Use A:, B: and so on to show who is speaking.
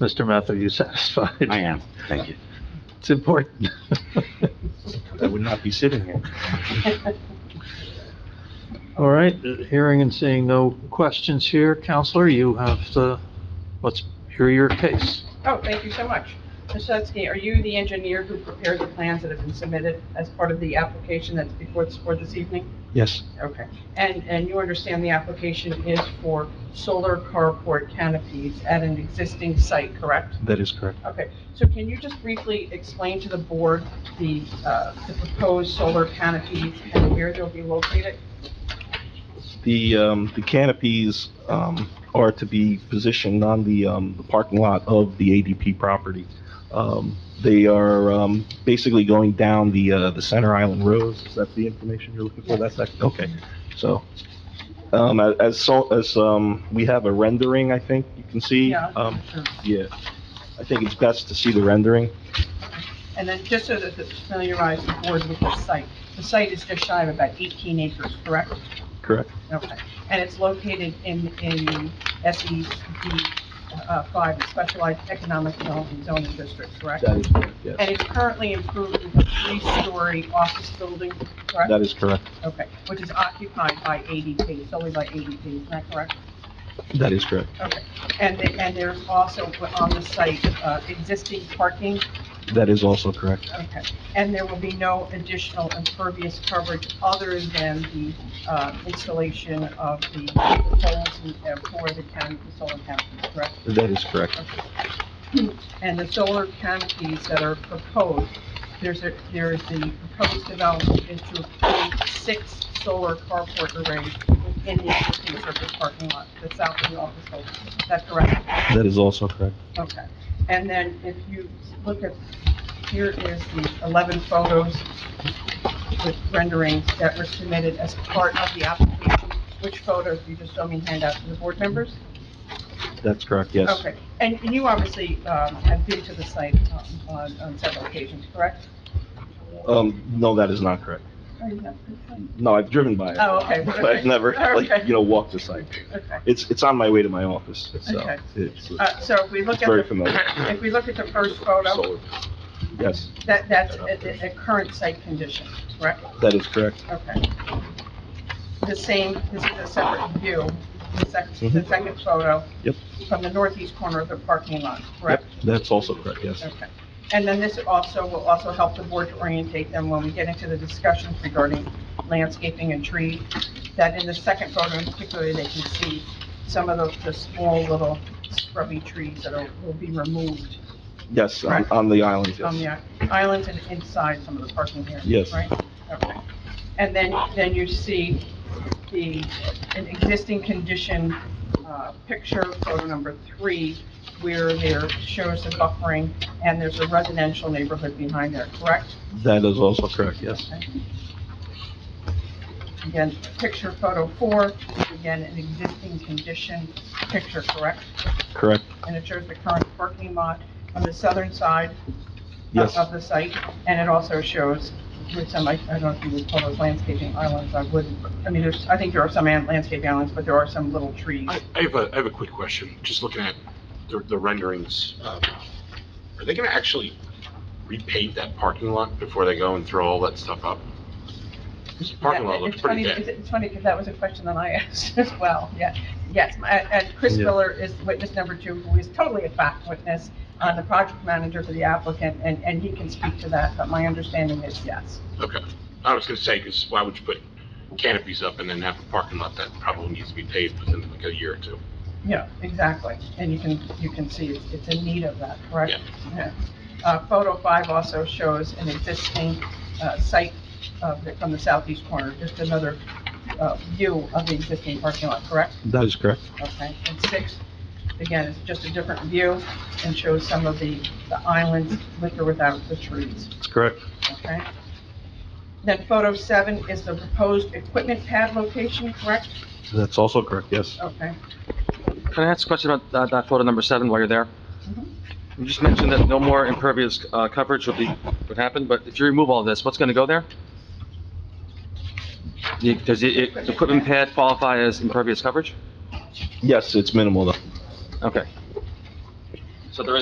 A: Mr. Meth, are you satisfied?
B: I am, thank you.
A: It's important.
B: I would not be sitting here.
A: All right, hearing and seeing no questions here, Counselor, you have the, let's hear your case.
C: Oh, thank you so much. Ms. Sutsky, are you the engineer who prepared the plans that have been submitted as part of the application that's before this board this evening?
D: Yes,
C: Okay. And, and you understand the application is for solar carport canopies at an existing site, correct?
D: that is correct.
C: Okay, so can you just briefly explain to the board the, uh, the proposed solar canopies and where they'll be located?
D: The, um, the canopies, um, are to be positioned on the, um, the parking lot of the ADP property. Um, they are, um, basically going down the, uh, the Center Island Road. Is that the information you're looking for? That's, ac- okay. So, um, a- as, so, as, um, we have a rendering, I think you can see.
C: Yeah.
D: Um, yeah. I think it's best to see the rendering.
C: And then just so that to familiarize the board with the site, the site is just shy of about 18 acres, correct?
D: Correct.
C: Okay, and it's located in, in the SED uh, 5, the Specialized Economic Development Zoning District, correct?
D: That is correct, yes.
C: And it's currently improved with a three-story office building,
D: That
C: correct?
D: is correct.
C: Okay, which is occupied by ADP, solely by ADP, is that correct?
D: That is correct.
C: Okay, and, the- and there's also on the site uh, existing parking,
D: That is also correct.
C: okay, and there will be no additional impervious coverage other than the uh, installation of the poles uh, for the county, the solar canopies, correct?
D: That is correct.
C: and the solar canopies that are proposed, there's a, there is the proposed development is to include six solar carport arrays in the existing surface parking lot, the south of the office building. Is that correct?
D: That is also correct.
C: Okay. And then if you look at, here is the 11 photos with renderings that were submitted as part of the application. Which photos, you just don't mean hand out to the board members?
D: That's correct, yes.
C: Okay, and you obviously um, have been to the site um, on on several occasions, correct?
D: Um, no, that is not correct. No, I've driven by it.
C: Oh, okay,
D: But
C: okay.
D: I've never, like,
C: Okay.
D: you know, walked the site.
C: Okay.
D: It's, it's on my way to my office, so.
C: Okay.
D: It's
C: Uh, So if we look
D: it's
C: at,
D: very
C: the
D: familiar.
C: if we look at the first photo,
D: Solar. Yes,
C: that, that's a, a- a current site condition, correct?
D: that is correct.
C: Okay. The same, this is a separate view, the sec- the
D: Mhm.
C: second photo.
D: Yep.
C: From the northeast corner of the parking lot, correct?
D: Yep, That's also correct, yes.
C: Okay. And then this also will also help the board to orientate them when we get into the discussions regarding landscaping and tree, that in the second photo in particular, they can see some of the, the small little scrubby trees that are, will be removed
D: Yes, on,
C: Right.
D: on the island,
C: on
D: yes.
C: the islands and inside some of the parking areas,
D: Yes.
C: right? Okay. And then, then you see the, an existing condition, uh, picture, photo number three, where there shows the buffering, and there's a residential neighborhood behind there, correct?
D: That is also correct, yes.
C: Again, picture photo four, again, an existing condition picture, correct?
D: Correct,
C: And it shows the current parking lot on the southern side, of-
D: yes.
C: of the site, and it also shows with some, I I don't know if you would call those landscaping islands, I wouldn't, I mean, there's, I think there are some an- landscaping islands, but there are some little trees.
E: I, I have a, I have a quick question, just looking at the, the renderings. um, Are they gonna actually repaint that parking lot before they go and throw all that stuff up? 'Cause the parking lot
C: Yeah,
E: looks
C: it's
E: pretty
C: funny-
E: dead.
C: It's it's funny, because that was a question that I asked as well, yeah. Yes, my- and Chris
D: Yeah.
C: Miller is witness number two, who is totally a fact witness, uh, the project manager for the applicant, and, and he can speak to that, but my understanding is yes.
E: Okay. I was gonna say, because why would you put canopies up and then have a parking lot that probably needs to be paved within like a year or two?
C: Yeah, exactly, and you can, you can see it's, it's in need of that, correct?
E: Yeah.
C: Yeah. Uh, photo five also shows an existing, uh, site of, the- from the southeast corner, just another, uh, view of the existing parking lot, correct?
D: That is correct.
C: Okay, and six, again, is just a different view and shows some of the, the islands with or without the trees,
D: It's correct.
C: okay? Then photo seven is the proposed equipment pad location, correct?
D: That's also correct, yes.
C: Okay.
F: Can I ask a question about uh, that, that photo number seven while you're there?
C: Mhm.
F: You just mentioned that no more impervious, uh, coverage would be, would happen, but if you remove all this, what's gonna go there? The- Does the, the equipment pad qualify as impervious coverage?
D: Yes, it's minimal though.
F: Okay,